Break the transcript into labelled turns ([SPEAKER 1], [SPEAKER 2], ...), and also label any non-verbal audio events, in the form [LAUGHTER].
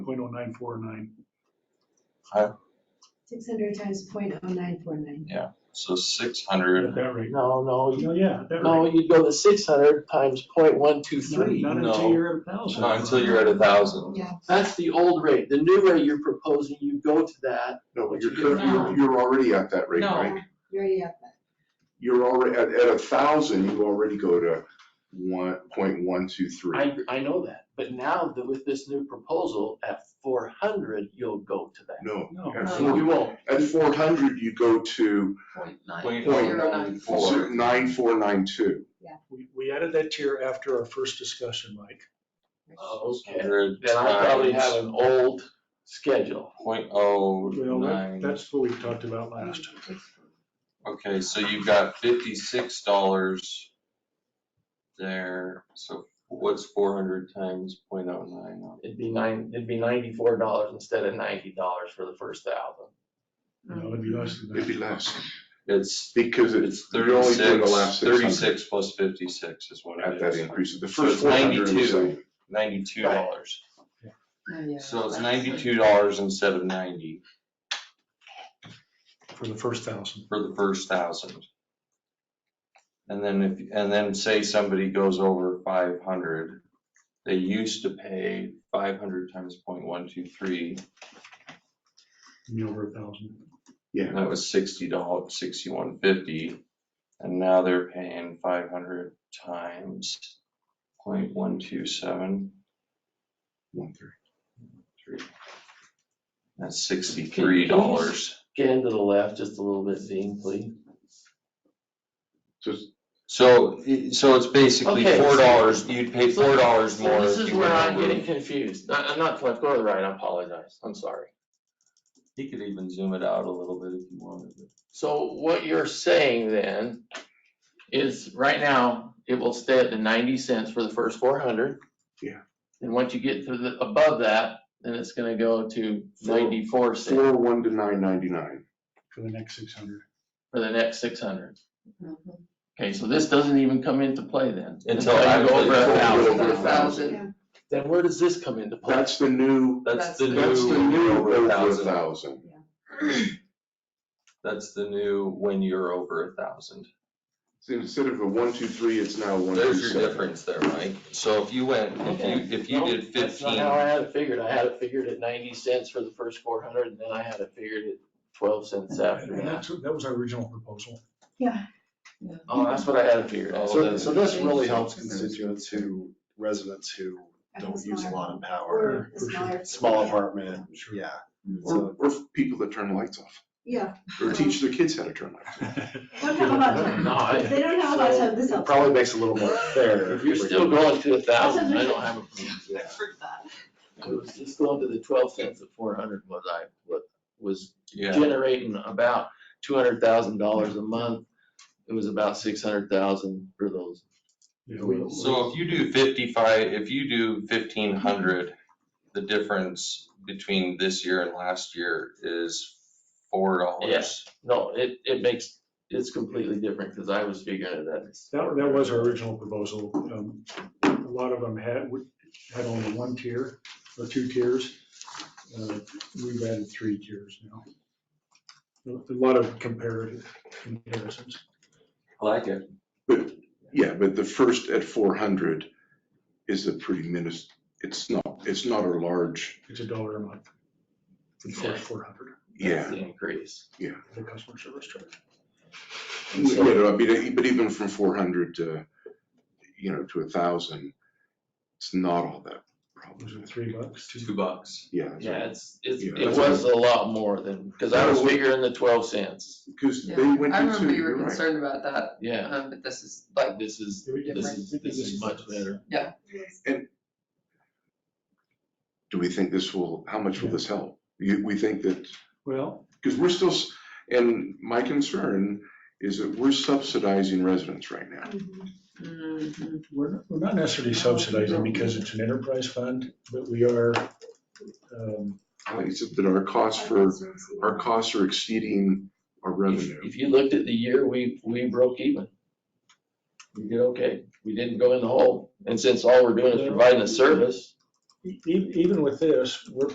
[SPEAKER 1] point oh nine four nine.
[SPEAKER 2] Six hundred times point oh nine four nine.
[SPEAKER 3] So six
[SPEAKER 1] At
[SPEAKER 3] hundred,
[SPEAKER 1] that rate.
[SPEAKER 4] No, no, you-
[SPEAKER 1] Oh, yeah, at that
[SPEAKER 4] no,
[SPEAKER 1] rate.
[SPEAKER 4] you go to six hundred times point one two three.
[SPEAKER 1] Not until
[SPEAKER 3] no.
[SPEAKER 1] you're at a thousand.
[SPEAKER 3] not until you're at a thousand.
[SPEAKER 2] Yeah.
[SPEAKER 4] That's the old rate. The new rate you're proposing, you go to that.
[SPEAKER 5] No,
[SPEAKER 4] What
[SPEAKER 5] but
[SPEAKER 4] you
[SPEAKER 5] you're,
[SPEAKER 4] do
[SPEAKER 5] cur-
[SPEAKER 2] now.
[SPEAKER 5] you're, you're already at that rate,
[SPEAKER 3] No.
[SPEAKER 5] right?
[SPEAKER 2] You already have that.
[SPEAKER 5] You're already, at, at a thousand, you already go to one, point one, two, three.
[SPEAKER 4] I, I know that, but now that with this new proposal, at four hundred, you'll go to that.
[SPEAKER 5] No,
[SPEAKER 1] No.
[SPEAKER 5] at
[SPEAKER 4] No,
[SPEAKER 5] four,
[SPEAKER 4] you won't.
[SPEAKER 5] at four hundred, you go to
[SPEAKER 6] Point nine
[SPEAKER 3] Point oh
[SPEAKER 6] zero nine
[SPEAKER 3] nine
[SPEAKER 6] four.
[SPEAKER 3] four.
[SPEAKER 5] nine, four, nine, two.
[SPEAKER 1] We, we added that tier after our first discussion, Mike.
[SPEAKER 2] oh
[SPEAKER 4] Okay.
[SPEAKER 3] Hundred
[SPEAKER 4] Then I probably have
[SPEAKER 3] times
[SPEAKER 4] an old schedule.
[SPEAKER 3] point oh
[SPEAKER 1] Well, that-
[SPEAKER 3] nine.
[SPEAKER 1] that's what we talked about last.
[SPEAKER 3] Okay, so you've got fifty-six dollars there. So what's four hundred times point oh nine?
[SPEAKER 4] It'd be nine, it'd be ninety-four dollars instead of ninety dollars for the first thousand.
[SPEAKER 1] You know, it'd be less than
[SPEAKER 5] It'd be
[SPEAKER 1] that.
[SPEAKER 5] less,
[SPEAKER 3] It's,
[SPEAKER 5] because it's,
[SPEAKER 3] it's
[SPEAKER 5] you're only doing the
[SPEAKER 3] thirty-six,
[SPEAKER 5] last six hundred.
[SPEAKER 3] thirty-six plus fifty-six is what
[SPEAKER 5] At
[SPEAKER 3] it
[SPEAKER 5] that
[SPEAKER 3] is.
[SPEAKER 5] increase, the
[SPEAKER 3] So
[SPEAKER 5] first
[SPEAKER 3] it's
[SPEAKER 5] four hundred is
[SPEAKER 3] 92.
[SPEAKER 5] like-
[SPEAKER 3] Ninety-two dollars.
[SPEAKER 2] Oh, yeah.
[SPEAKER 3] So it's ninety-two dollars instead of ninety
[SPEAKER 1] For the first thousand.
[SPEAKER 3] for the first thousand. And then if, and then say somebody goes over five hundred, they used to pay five hundred times point one two three.
[SPEAKER 1] You over a thousand.
[SPEAKER 3] And that was sixty dollars, sixty-one fifty, and now they're paying five hundred times point one two seven
[SPEAKER 5] one, three.
[SPEAKER 3] three. That's sixty-three dollars.
[SPEAKER 4] Scan to the left just a little bit, Dean, please.
[SPEAKER 5] So it's-
[SPEAKER 3] So, i- so it's basically
[SPEAKER 4] Okay.
[SPEAKER 3] four dollars, you'd pay four dollars
[SPEAKER 4] So
[SPEAKER 3] more.
[SPEAKER 4] This
[SPEAKER 3] if
[SPEAKER 4] is
[SPEAKER 3] you
[SPEAKER 4] where
[SPEAKER 3] went
[SPEAKER 4] I'm
[SPEAKER 3] over.
[SPEAKER 4] getting confused. I- I'm not, let's go to the right, I apologize, I'm sorry.
[SPEAKER 3] He could even zoom it out a little bit if you wanted.
[SPEAKER 4] So what you're saying then is right now, it will stay at the ninety cents for the first four hundred.
[SPEAKER 5] Yeah.
[SPEAKER 4] And once you get to the, above that, then it's gonna go to
[SPEAKER 5] Four-
[SPEAKER 4] ninety-four cents
[SPEAKER 5] four, one to nine, ninety-nine.
[SPEAKER 1] For the next six hundred.
[SPEAKER 4] for the next six hundred.
[SPEAKER 2] Mm-hmm.
[SPEAKER 4] Okay, so this doesn't even come into play then.
[SPEAKER 3] Until
[SPEAKER 4] you go
[SPEAKER 3] I-
[SPEAKER 4] over
[SPEAKER 3] until
[SPEAKER 4] a
[SPEAKER 3] you
[SPEAKER 4] thousand.
[SPEAKER 5] Over a thousand.
[SPEAKER 2] Yeah.
[SPEAKER 4] Then where does this come into play?
[SPEAKER 5] That's the new,
[SPEAKER 3] That's
[SPEAKER 2] That's
[SPEAKER 3] the
[SPEAKER 2] the-
[SPEAKER 3] new.
[SPEAKER 5] that's the new over a
[SPEAKER 3] thousand.
[SPEAKER 5] thousand.
[SPEAKER 3] That's the new when you're over a thousand.
[SPEAKER 5] So instead of a one, two, three, it's now one, two, seven.
[SPEAKER 3] There's your difference there, Mike. So if you went, if you, if you
[SPEAKER 4] No,
[SPEAKER 3] did
[SPEAKER 4] That's not
[SPEAKER 3] fifteen,
[SPEAKER 4] how I had it figured. I had it figured at ninety cents for the first four hundred and then I had it figured at twelve cents after
[SPEAKER 1] And
[SPEAKER 4] that.
[SPEAKER 1] that's, that was our original proposal.
[SPEAKER 3] [LAUGHS]
[SPEAKER 4] Oh, that's what I had it figured at.
[SPEAKER 3] Oh,
[SPEAKER 7] So, so this really
[SPEAKER 2] Thank
[SPEAKER 7] helps
[SPEAKER 2] you.
[SPEAKER 7] constituents who, residents who don't use a lot of
[SPEAKER 2] Or
[SPEAKER 7] power,
[SPEAKER 2] smaller.
[SPEAKER 7] small apartment, yeah.
[SPEAKER 5] Or, or people that turn lights off,
[SPEAKER 2] Yeah.
[SPEAKER 5] or teach [LAUGHS] their kids how to turn lights off.
[SPEAKER 2] Don't have a lot of time.
[SPEAKER 4] No, I-
[SPEAKER 2] If They don't have a lot of time, this
[SPEAKER 7] So it
[SPEAKER 2] helps.
[SPEAKER 7] Probably makes it a little more fair.
[SPEAKER 4] If you're still going to a thousand, I
[SPEAKER 2] That's
[SPEAKER 4] don't have a problem. I was just going to the twelve cents at four hundred was I, what was
[SPEAKER 3] yeah,
[SPEAKER 4] generating about two hundred thousand dollars a month. It was about six hundred thousand for those.
[SPEAKER 1] Yeah, we-
[SPEAKER 3] so if you do fifty-five, if you do fifteen hundred, the difference between this year and last year is four dollars.
[SPEAKER 4] No, it, it makes, it's completely different because I was figuring it at.
[SPEAKER 1] That, that was our original proposal. Um, A lot of them had, would- had only one tier or two tiers. Uh, We've added three tiers now. A lot of comparative comparisons.
[SPEAKER 3] I like it.
[SPEAKER 5] Yeah, but the first at four hundred is a pretty minis, it's not, it's not a large,
[SPEAKER 1] It's a dollar a month for the first four hundred,
[SPEAKER 4] That's
[SPEAKER 5] yeah.
[SPEAKER 4] the Increase.
[SPEAKER 1] the customer service charge.
[SPEAKER 5] You know, I mean, but even from four hundred to, you know, to a thousand, it's not all that
[SPEAKER 1] Was
[SPEAKER 5] problem.
[SPEAKER 1] it three bucks? Two-
[SPEAKER 3] Two bucks.
[SPEAKER 5] Mm-hmm. Yeah,
[SPEAKER 4] Yeah, it's, it's,
[SPEAKER 5] Yeah.
[SPEAKER 4] it was a lot more than, because I was figuring the twelve cents.
[SPEAKER 5] because
[SPEAKER 6] Yeah,
[SPEAKER 5] they went
[SPEAKER 6] I
[SPEAKER 5] to two,
[SPEAKER 6] remember you
[SPEAKER 5] you're
[SPEAKER 6] were
[SPEAKER 5] right.
[SPEAKER 6] concerned about that,
[SPEAKER 4] Yeah,
[SPEAKER 6] um, but this is like,
[SPEAKER 4] this is,
[SPEAKER 1] We did-
[SPEAKER 4] this is,
[SPEAKER 1] we did
[SPEAKER 4] this is much better.
[SPEAKER 2] Yes.
[SPEAKER 5] Do we think this will, how much will this help? You, we think that,
[SPEAKER 1] Well,
[SPEAKER 5] because we're still, s- and my concern is that we're subsidizing residents right now.
[SPEAKER 2] Mhm.
[SPEAKER 6] mm,
[SPEAKER 1] we're, not- we're not necessarily subsidizing because it's an enterprise fund, but we are, um,
[SPEAKER 5] Except that our costs for, our
[SPEAKER 2] Services.
[SPEAKER 5] costs are exceeding our revenue.
[SPEAKER 4] If if you looked at the year, we, we broke even. We did okay. We didn't go in the hole. And since all we're doing is providing a service,
[SPEAKER 1] e- e- even with this, we're